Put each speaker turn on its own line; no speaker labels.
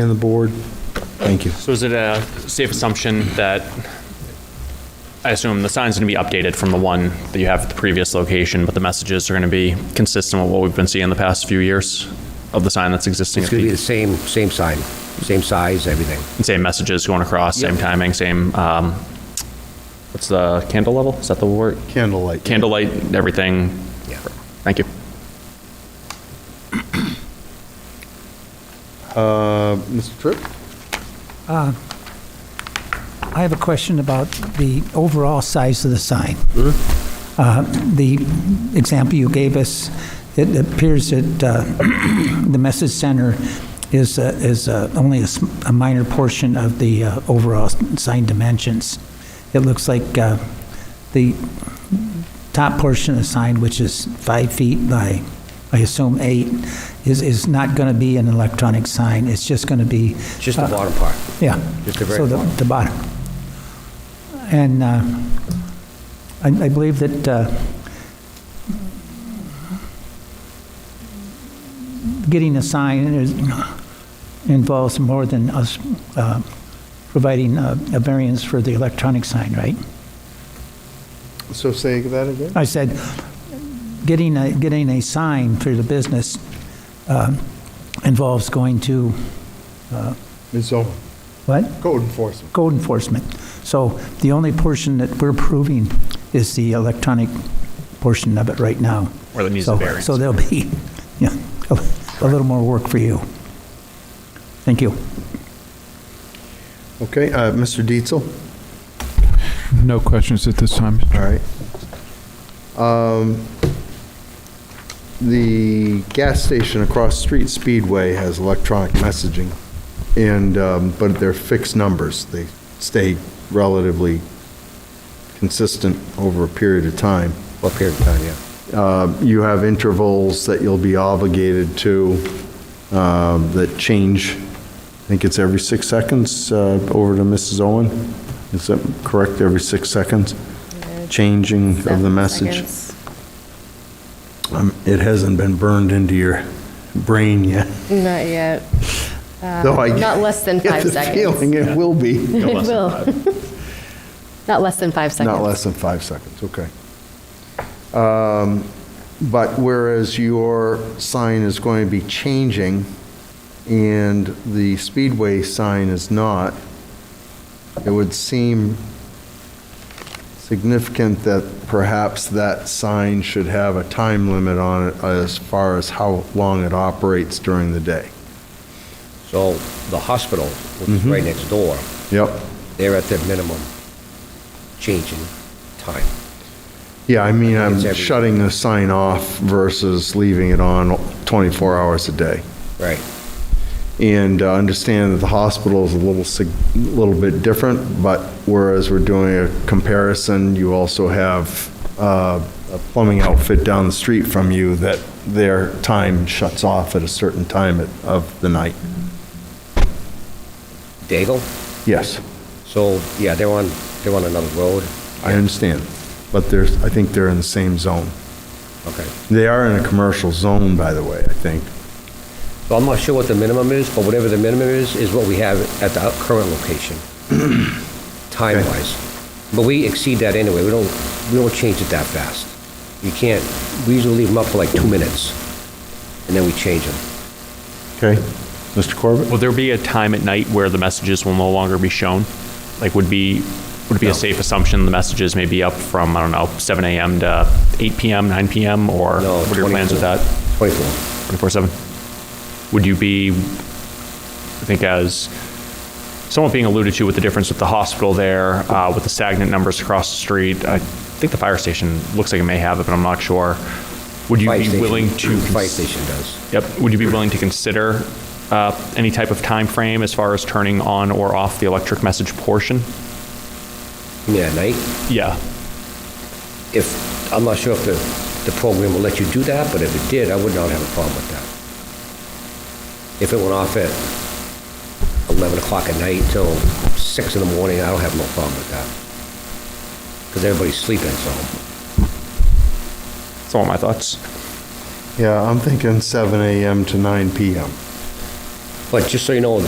and the board. Thank you.
So is it a safe assumption that, I assume the sign's going to be updated from the one that you have at the previous location, but the messages are going to be consistent with what we've been seeing the past few years of the sign that's existing?
It's going to be the same, same sign, same size, everything.
Same messages going across, same timing, same, um, what's the candle level? Is that the word?
Candlelight.
Candlelight, everything?
Yeah.
Thank you.
Uh, Mr. Tripp?
I have a question about the overall size of the sign. Uh, The example you gave us, it appears that uh, the message center is, uh, is uh, only a s- a minor portion of the uh, overall s- sign dimensions. It looks like uh, the top portion of the sign, which is five feet by, I assume, eight, is, is not going to be an electronic sign. It's just going to be
Just
Uh-huh.
the bottom part.
yeah.
Just the very
So the,
bottom.
the bottom. And uh, I, I believe that uh, getting a sign is, involves more than us uh, providing a, a variance for the electronic sign, right?
So say that again?
I said, getting a, getting a sign for the business uh, involves going to,
Ms. Owen,
what?
code enforcement.
code enforcement. So the only portion that we're approving is the electronic portion of it right now.
Or that needs a
So-
variance.
So there'll be, yeah, a a little more work for you. Thank you.
Okay, uh, Mr. Dietzel?
No questions at this time.
All right. Um, The gas station across the Street Speedway has electronic messaging, and, um, but they're fixed numbers. They stay relatively consistent over a period of time.
What period of time, yeah.
Uh, You have intervals that you'll be obligated to um, that change, I think it's every six seconds, uh, over to Mrs. Owen? Is that correct, every six seconds? Changing of the
Seven
message?
seconds.
Um, It hasn't been burned into your brain yet.
Not yet.
though I
Uh, Not less than
get
five
the
seconds.
feeling it will be,
It will. Not less than five seconds.
not less than five seconds, okay. Um, But whereas your sign is going to be changing and the Speedway sign is not, it would seem significant that perhaps that sign should have a time limit on it as far as how long it operates during the day.
So the hospital, which is right next door,
Yep.
they're at their minimum changing time.
Yeah, I mean, I'm
It's every-
shutting the sign off versus leaving it on 24 hours a day.
Right.
And uh, understand that the hospital is a little, sig- little bit different, but whereas we're doing a comparison, you also have uh, a plumbing outfit down the street from you that their time shuts off at a certain time at- of the night.
Daigle,
Yes,
so, yeah, they're on, they're on another road.
I understand, but there's, I think they're in the same zone.
Okay.
They are in a commercial zone, by the way, I think.
So I'm not sure what the minimum is, but whatever the minimum is, is what we have at the current location, time-wise. But we exceed that anyway, we don't, we don't change it that fast. You can't, we usually leave them up for like two minutes, and then we change them.
Okay, Mr. Corbett?
Will there be a time at night where the messages will no longer be shown? Like, would be, would it be a safe assumption the messages may be up from, I don't know, 7 AM to 8 PM, 9 PM, or
No,
what are your plans with that?
24.
24/7? Would you be, I think as somewhat being alluded to with the difference with the hospital there, uh, with the stagnant numbers across the street, I think the fire station looks like it may have it, but I'm not sure. Would you
Fire
be
station-
willing to?
Fire
cons-
station does.
Yep. Would you be willing to consider uh, any type of time frame as far as turning on or off the electric message portion?
You mean at night?
Yeah.
If, I'm not sure if the, the program will let you do that, but if it did, I would not have a problem with that. If it went off at 11 o'clock at night till 6 in the morning, I don't have no problem with that. Because everybody's sleeping, so.
That's all my thoughts.
Yeah, I'm thinking 7 AM to 9 PM.
But just so you know,